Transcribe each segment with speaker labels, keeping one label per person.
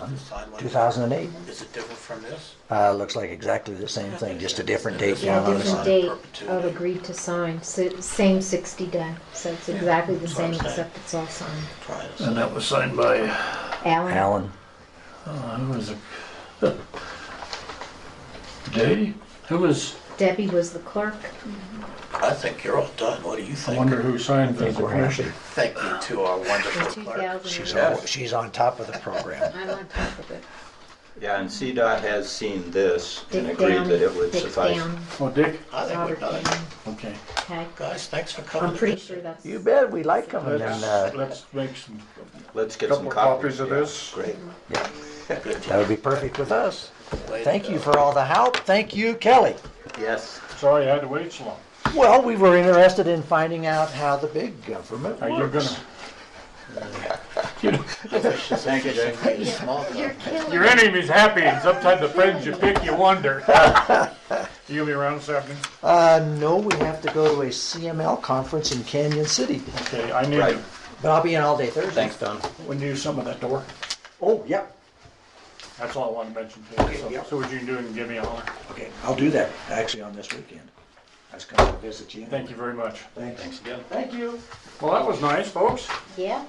Speaker 1: on the sideline?
Speaker 2: 2008.
Speaker 1: Is it different from this?
Speaker 2: Uh, looks like exactly the same thing, just a different date
Speaker 1: Yeah,
Speaker 2: down on the
Speaker 1: there's
Speaker 3: different
Speaker 2: side.
Speaker 3: date of agreed to sign, si- same 60 day. So it's exactly the
Speaker 1: that's what I'm
Speaker 3: same,
Speaker 1: saying.
Speaker 3: except it's all signed.
Speaker 1: Trying to say.
Speaker 4: And that was signed by,
Speaker 3: Alan,
Speaker 2: Alan,
Speaker 4: uh, who was it? Day?
Speaker 5: Who was,
Speaker 3: Debbie was the clerk.
Speaker 1: I think you're all done. What do you
Speaker 6: I
Speaker 1: think?
Speaker 6: wonder who signed
Speaker 2: I think
Speaker 6: the
Speaker 2: we're happy.
Speaker 6: commission.
Speaker 1: Thank you to our
Speaker 3: In
Speaker 1: wonderful clerk.
Speaker 3: 2000
Speaker 2: She's
Speaker 3: and-
Speaker 2: on, she's on top of the program.
Speaker 3: I'm on top of it.
Speaker 7: Yeah, and CDOT has seen this and
Speaker 3: Dick
Speaker 7: agreed
Speaker 3: down,
Speaker 7: that it would
Speaker 3: Dick
Speaker 7: suffice.
Speaker 3: down,
Speaker 4: Oh, Dick?
Speaker 1: I think we're
Speaker 3: Robert
Speaker 1: done.
Speaker 3: down.
Speaker 4: Okay.
Speaker 3: Okay,
Speaker 1: Guys, thanks for coming.
Speaker 3: I'm pretty sure that's.
Speaker 2: You bet, we like them and then,
Speaker 4: Let's,
Speaker 2: uh,
Speaker 4: let's make some,
Speaker 7: Let's get some
Speaker 6: Couple
Speaker 7: copies.
Speaker 6: copies of
Speaker 7: Yeah,
Speaker 6: this.
Speaker 7: Great.
Speaker 1: Good
Speaker 2: that
Speaker 1: job.
Speaker 2: would be perfect with us.
Speaker 1: Way to
Speaker 2: Thank
Speaker 1: go.
Speaker 2: you for all the help. Thank you, Kelly.
Speaker 7: Yes.
Speaker 4: sorry I had to wait so long.
Speaker 2: Well, we were interested in finding out how the big government
Speaker 4: Are you
Speaker 2: works.
Speaker 4: Uh, gonna,
Speaker 7: Thank you, Jay.
Speaker 1: Small
Speaker 3: You're
Speaker 4: your
Speaker 3: killing.
Speaker 4: enemy's happy and sometimes the friends you pick, you wonder. You gonna be around this afternoon?
Speaker 2: Uh, no, we have to go to a CML conference in Canyon City,
Speaker 4: Okay, I need
Speaker 7: Right.
Speaker 4: to,
Speaker 2: but I'll be in all day Thursday.
Speaker 7: Thanks, Don.
Speaker 4: we need some of that door.
Speaker 2: Oh, yep.
Speaker 4: That's all I want to mention to you. So-
Speaker 2: yeah.
Speaker 4: So what you can do and give me a holler.
Speaker 2: Okay, I'll do that, actually, on this weekend. I was coming to visit you.
Speaker 4: Thank you very much.
Speaker 2: Thanks.
Speaker 7: again.
Speaker 2: Thank you.
Speaker 4: Well, that was nice, folks.
Speaker 3: Yeah.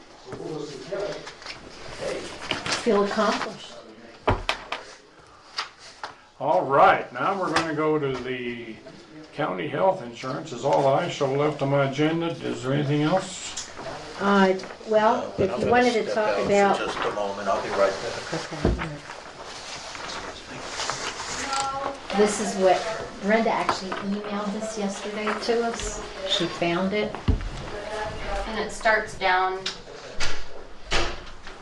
Speaker 3: Feel accomplished.
Speaker 4: All right, now we're gonna go to the county health insurance is all I show left on my agenda. Is there anything else?
Speaker 3: Uh, well,
Speaker 1: But
Speaker 3: if
Speaker 1: I'm
Speaker 3: you
Speaker 1: gonna
Speaker 3: wanted to
Speaker 1: step
Speaker 3: talk
Speaker 1: out for
Speaker 3: about.
Speaker 1: Just a moment, I'll be right back.
Speaker 3: This is what Brenda actually emailed this yesterday to us. She found it
Speaker 8: And it starts down,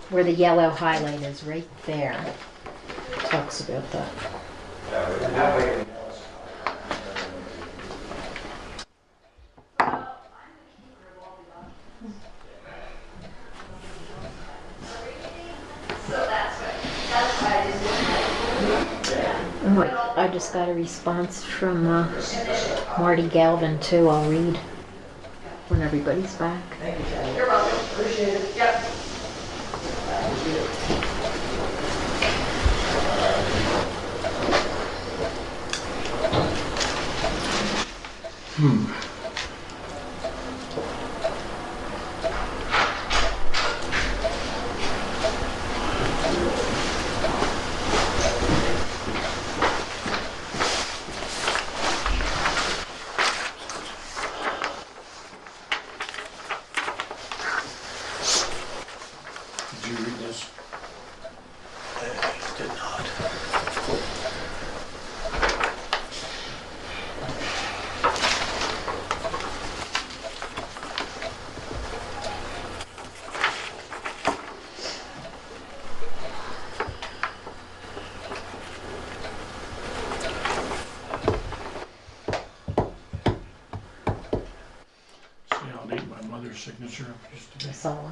Speaker 3: where the yellow highlight is, right there. Talks about that. Oh, Oh, I I just got a response from uh, Marty Galvin too. I'll read when everybody's back.
Speaker 4: Did you read this?
Speaker 1: Did not.
Speaker 4: See, I'll need my mother's signature just to be.
Speaker 3: That's all.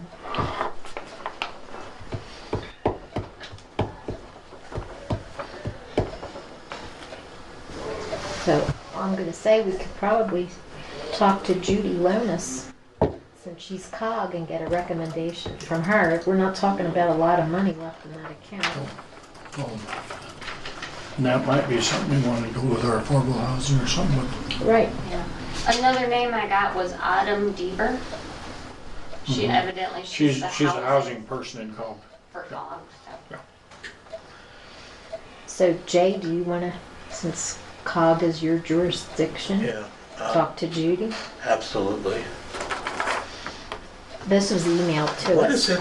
Speaker 3: So I'm gonna say we could probably talk to Judy Lonis, since she's cog, and get a recommendation from her. We're not talking about a lot of money left in that account.
Speaker 4: And that might be something we want to do with our affordable housing or something with.
Speaker 3: Right.
Speaker 8: yeah. Another name I got was Autumn Deaver. She
Speaker 4: Mm-hmm.
Speaker 8: evidently,
Speaker 4: She's,
Speaker 8: she's the
Speaker 4: she's a housing
Speaker 8: housing
Speaker 4: person in Cobb.
Speaker 8: for dogs.
Speaker 3: So Jay, do you wanna, since cog is your jurisdiction,
Speaker 1: Yeah, uh,
Speaker 3: talk to Judy?
Speaker 1: absolutely.
Speaker 3: This was emailed to
Speaker 1: What
Speaker 3: us.
Speaker 1: is it?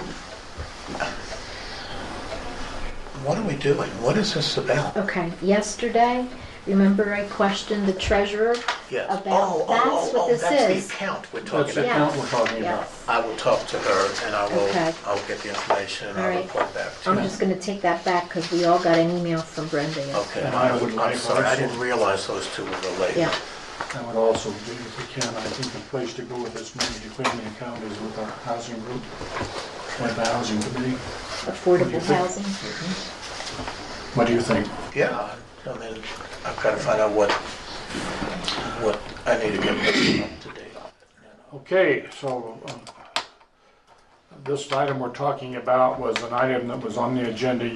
Speaker 1: What are we doing? What is this about?
Speaker 3: Okay, yesterday, remember I questioned the treasurer?
Speaker 1: Yes.
Speaker 3: About-
Speaker 1: Oh, oh,
Speaker 3: that's
Speaker 1: oh,
Speaker 3: what
Speaker 1: oh,
Speaker 3: this
Speaker 1: That's
Speaker 3: is.
Speaker 1: the account we're
Speaker 4: That's
Speaker 1: talking
Speaker 4: the
Speaker 1: about.
Speaker 3: Yeah.
Speaker 4: account we're talking about.
Speaker 3: Yes.
Speaker 1: I will talk to her and I
Speaker 3: Okay.
Speaker 1: will, I'll get the information and
Speaker 3: All
Speaker 1: I'll
Speaker 3: right.
Speaker 1: report back to
Speaker 3: I'm
Speaker 1: you.
Speaker 3: just gonna take that back because we all got an email from Brenda. yesterday.
Speaker 1: Okay,
Speaker 4: And I
Speaker 1: I
Speaker 4: would
Speaker 1: would, I'm
Speaker 4: like
Speaker 1: sorry, I
Speaker 4: also-
Speaker 1: didn't realize those two were related.
Speaker 3: Yeah,
Speaker 4: I would also, be, if we can, I think the place to go with this money to clean the account is with our housing group, with the housing committee.
Speaker 3: affordable housing.
Speaker 4: What do you think?
Speaker 1: Yeah, I I mean, I've got to find out what, what I need to get this up to date on.
Speaker 4: Okay, so um, this item we're talking about was an item that was on the agenda